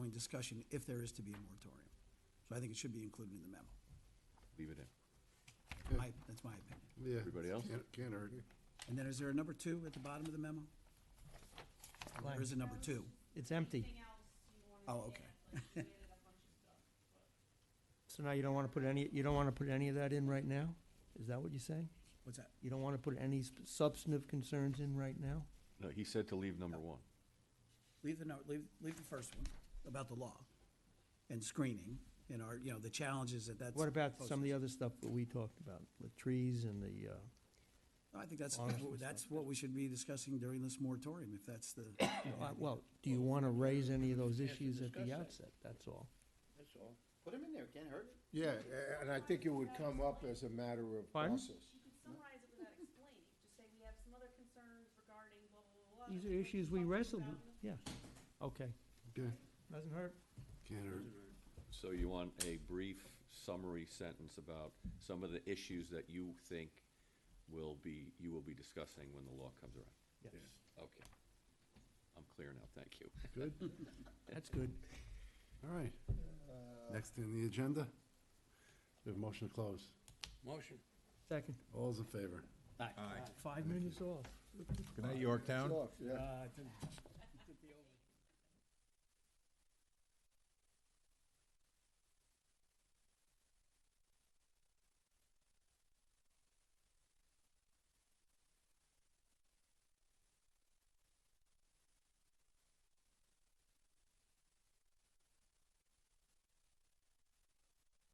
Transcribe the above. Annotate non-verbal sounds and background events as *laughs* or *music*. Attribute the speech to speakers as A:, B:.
A: and discussion if there is to be a moratorium. So I think it should be included in the memo.
B: Leave it in.
A: My- That's my opinion.
C: Yeah.
B: Everybody else?
C: Can't- Can't hurt you.
A: And then is there a number two at the bottom of the memo? Or There is a number two.
D: It's empty,
E: Anything else you wanted
A: Oh,
E: to
A: okay.
E: add, like, you added a bunch of stuff, but-
D: so now you don't want to put any, you don't want to put any of that in right now? Is that what you're saying?
A: What's that?
D: You don't want to put any sp- substantive concerns in right now?
B: No, he said to leave number one.
A: Leave the, no- leave, leave the first one about the law and screening and our, you know, the challenges that that's.
D: What about some of the other stuff that we talked about, the trees and the, uh,
A: I think *laughs* that's,
D: Honestly, it's
A: that's what we should be discussing during this moratorium, if that's
D: *coughs*
A: the.
D: uh, well, do you want to raise any of those
F: We have to
D: issues at the
F: discuss that.
D: outset? That's all.
F: That's all. Put them in there, can't hurt it.
C: Yeah, a- and I think it would come up as a matter of
D: Pardon?
C: process.
E: You
A: *laughs*
E: could summarize it without explaining, just say we have some other concerns regarding blah, blah, blah, blah.
D: These
E: that
D: are
E: we'll
D: issues
E: be
D: we
E: talking
D: wrestled
E: about
D: with,
E: in the
D: yeah. Okay,
C: Okay,
D: doesn't hurt.
C: can't hurt.
B: So you want a brief summary sentence about some of the issues that you think will be, you will be discussing when the law comes around?
D: Yes,
B: Okay. I'm clear now, thank you.
C: Good,
D: that's good.
C: all right. Next in the agenda, Uh, we have motion to close.
F: Motion.
D: Second,
C: All's in favor?
D: five minutes off.
G: Good night, Yorktown.
C: yeah.
A: Uh,